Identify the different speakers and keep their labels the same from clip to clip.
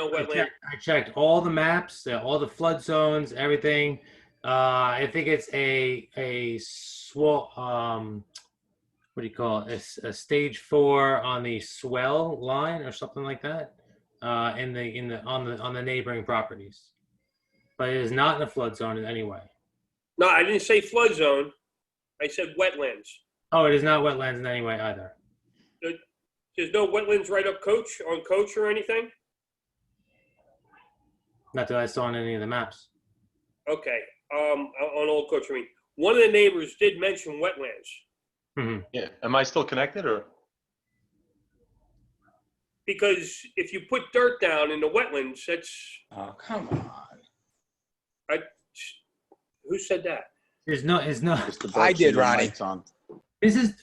Speaker 1: No
Speaker 2: I
Speaker 1: wetland.
Speaker 2: checked, I checked all the maps, uh, all the flood zones, everything. Uh, I think it's a, a swell, um, what do you call it? A s- A, stage four on the swell line or something like that. Uh, in the, in the, on the, on the neighboring properties. But it is not in a flood zone in any way.
Speaker 1: No, I didn't say flood zone. I said wetlands.
Speaker 2: Oh, it is not wetlands in any way either.
Speaker 1: There's no wetlands right up coach, on coach or anything?
Speaker 2: Not that I saw on any of the maps.
Speaker 1: Okay, um, on Old Coach, I mean, one of the neighbors did mention wetlands.
Speaker 2: hmm
Speaker 3: Yeah, am I still connected or?
Speaker 1: Because if you put dirt down in the wetlands, that's,
Speaker 3: Oh, come on.
Speaker 1: who said that?
Speaker 2: There's no, it's not,
Speaker 4: I did, Ronnie.
Speaker 2: This is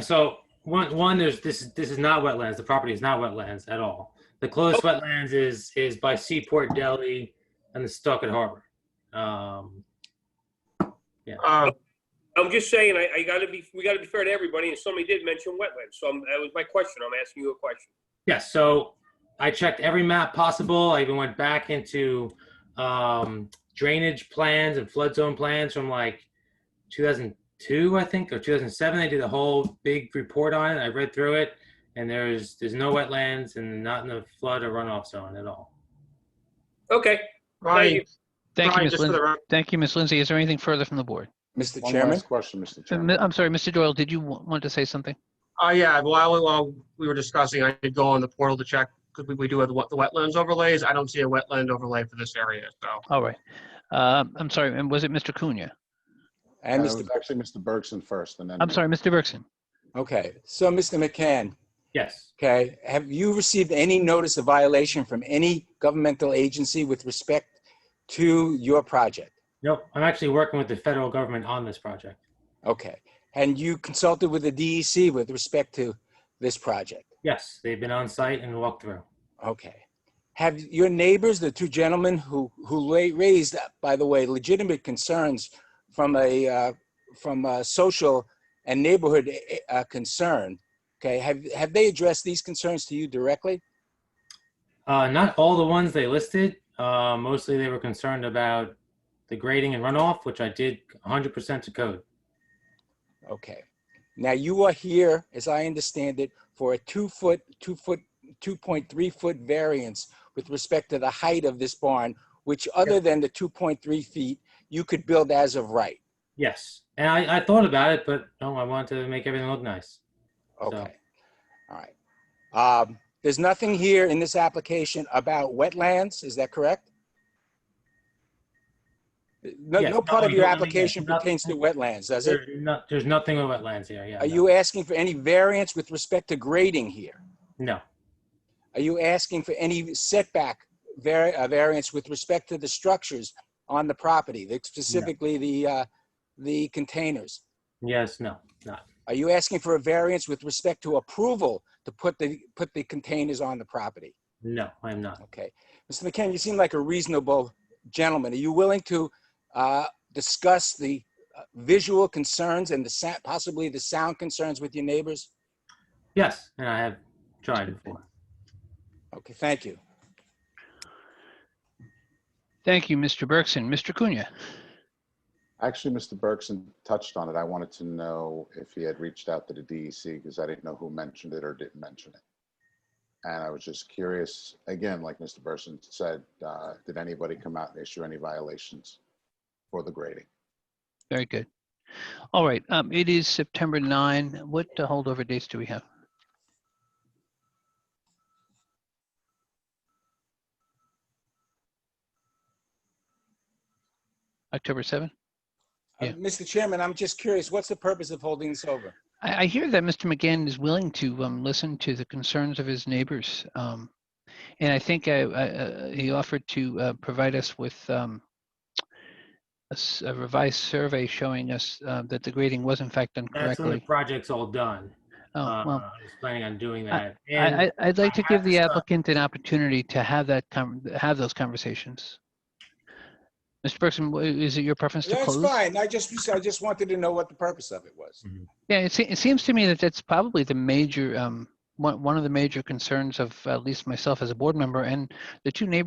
Speaker 2: so one. One, there's this. This is not wetlands. The property is not wetlands at all. The closest wetlands is is by Seaport Deli and the Stockton Harbor. Um,
Speaker 1: I'm just saying, I, I gotta be, we gotta be fair to everybody, and somebody did mention wetlands, so I'm- that was my question, I'm asking you a question.
Speaker 2: yeah. So I checked every map possible. I even went back into um, drainage plans and flood zone plans from like 2002, I think, or 2007. They did a whole big report on it. I read through it, and there's there's no wetlands and not in the flood or runoff zone at all.
Speaker 1: Okay,
Speaker 5: Ronnie,
Speaker 6: Thank you,
Speaker 5: Ronnie,
Speaker 6: Ms.
Speaker 5: just for
Speaker 6: Lindsay.
Speaker 5: the record,
Speaker 6: Thank you, Ms. Lindsay. Is there anything further from the board?
Speaker 4: Mr.
Speaker 7: One
Speaker 4: Chairman?
Speaker 7: last question, Mr.
Speaker 6: Uh,
Speaker 7: Chairman.
Speaker 6: I'm sorry, Mr. Doyle, did you wa- want to say something?
Speaker 5: oh yeah, while, while we were discussing, I did go on the portal to check, because we, we do have the wet- the wetlands overlays. I don't see a wetland overlay for this area, so.
Speaker 6: All right. Um, I'm sorry, and was it Mr. Cunha?
Speaker 7: And
Speaker 4: And Mr.
Speaker 7: Mr. Actually, Mr. Bergson first and then.
Speaker 6: I'm sorry, Mr. Bergson.
Speaker 4: Okay, so Mr. McCann,
Speaker 2: Yes.
Speaker 4: okay, have you received any notice of violation from any governmental agency with respect to your project?
Speaker 2: Nope, I'm actually working with the federal government on this project.
Speaker 4: Okay, and you consulted with the DEC with respect to this project?
Speaker 2: Yes, they've been on site and walked through.
Speaker 4: Okay. Have your neighbors, the two gentlemen who, who la- raised, uh, by the way, legitimate concerns from a, uh, from a social and neighborhood eh, uh, concern, okay, have, have they addressed these concerns to you directly?
Speaker 2: Uh, not all the ones they listed. Uh, mostly they were concerned about the grading and runoff, which I did 100% to code.
Speaker 4: Okay. Now you are here, as I understand it, for a two foot, two foot, 2.3 foot variance with respect to the height of this barn, which other than the 2.3 feet, you could build as of right.
Speaker 2: Yes, and I, I thought about it, but no, I wanted to make everything look nice. So-
Speaker 4: Okay, all right. Um, There's nothing here in this application about wetlands, is that correct? No,
Speaker 2: Yes,
Speaker 4: no part of
Speaker 2: nothing,
Speaker 4: your
Speaker 2: nothing,
Speaker 4: application
Speaker 2: nothing.
Speaker 4: pertains to wetlands, does it?
Speaker 2: There's, no, there's nothing with wetlands here. Yeah.
Speaker 4: Are
Speaker 2: no.
Speaker 4: you asking for any variance with respect to grading here?
Speaker 2: No,
Speaker 4: Are you asking for any setback vari- uh, variance with respect to the structures on the property, the- specifically the, uh, the containers?
Speaker 2: yes, no, not.
Speaker 4: Are you asking for a variance with respect to approval to put the, put the containers on the property?
Speaker 2: No, I'm not.
Speaker 4: Okay. Mr. McCann, you seem like a reasonable gentleman. Are you willing to uh, discuss the uh, visual concerns and the sa- possibly the sound concerns with your neighbors?
Speaker 2: Yes, and I have tried before.
Speaker 4: Okay, thank you.
Speaker 6: Thank you, Mr. Bergson. Mr. Cunha?
Speaker 7: Actually, Mr. Bergson touched on it. I wanted to know if he had reached out to the DEC because I didn't know who mentioned it or didn't mention it. And I was just curious, again, like Mr. Bergson said, uh, did anybody come out and issue any violations for the grading?
Speaker 6: Very good. All right, um, it is September 9. What uh, holdover dates do we have? October 7?
Speaker 4: Uh,
Speaker 6: Yeah.
Speaker 4: Mr. Chairman, I'm just curious, what's the purpose of holding this over?
Speaker 6: I, I hear that Mr. McGann is willing to um, listen to the concerns of his neighbors. Um, and I think I, I, uh, he offered to uh, provide us with um, a, s- a revised survey showing us uh, that the grading was in fact done
Speaker 2: That's when the
Speaker 6: correctly.
Speaker 2: project's all done.
Speaker 6: Oh,
Speaker 2: uh,
Speaker 6: well,
Speaker 2: I was planning on doing
Speaker 6: I-
Speaker 2: that.
Speaker 6: I,
Speaker 2: and
Speaker 6: I, I'd like
Speaker 2: I
Speaker 6: to
Speaker 2: have
Speaker 6: give the
Speaker 2: this, uh,
Speaker 6: applicant an opportunity to have that, con- have those conversations. Mr. Bergson, w- is it your preference to
Speaker 4: That's
Speaker 6: close?
Speaker 4: fine. I just, I just wanted to know what the purpose of it was.
Speaker 6: Yeah, it, se- it seems to me that that's probably the major um, one, one of the major concerns of at least myself as a board member and the two neighbors